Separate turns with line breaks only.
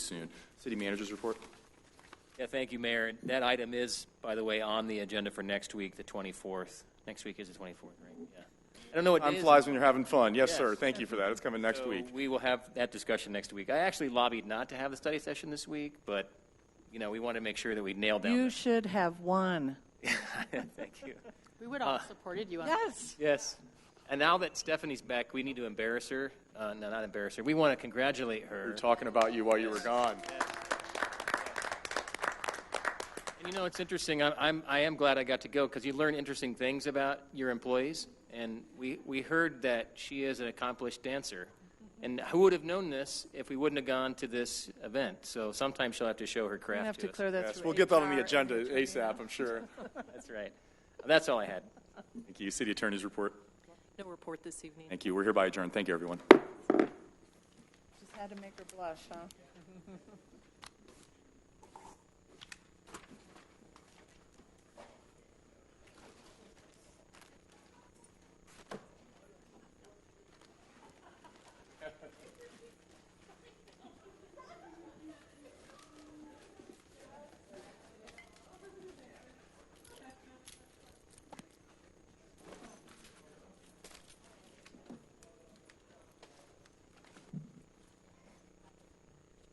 soon. City Manager's report.
Yeah, thank you, Mayor. And That item is, by the way, on the agenda for next week, the 24th. Next week is the 24th, right? Yeah. I don't know what day
Time
Oh, it is.
flies when you're having fun. Yes,
Yes.
sir. Thank you for that. It's coming next
So
week.
We will have that discussion next week. I actually lobbied not to have the study session this week, but, you know, we want to make sure that we nail
You
down.
should have one.
the- Thank you.
We would all supported you on that.
Yes.
Yes. And now that Stephanie's back, we need to embarrass her. Uh, no, not embarrass her. We want to congratulate
We
her.
were talking about you while you were gone.
And you know, it's interesting. I'm, I'm I am glad I got to go because you learn interesting things about your employees. And we we heard that she is an accomplished dancer, and who would have known this if we wouldn't have gone to this event? So sometimes she'll have to show her
You
craft
have to
us.
clear that
Yes,
through
we'll get that on
HR
the
and
agenda
HR.
ASAP, I'm sure.
That's right. That's all I had.
Thank you. City Attorney's report.
No report this evening.
Thank you. We're hereby adjourned. Thank you, everyone.
Just had to make her blush, huh?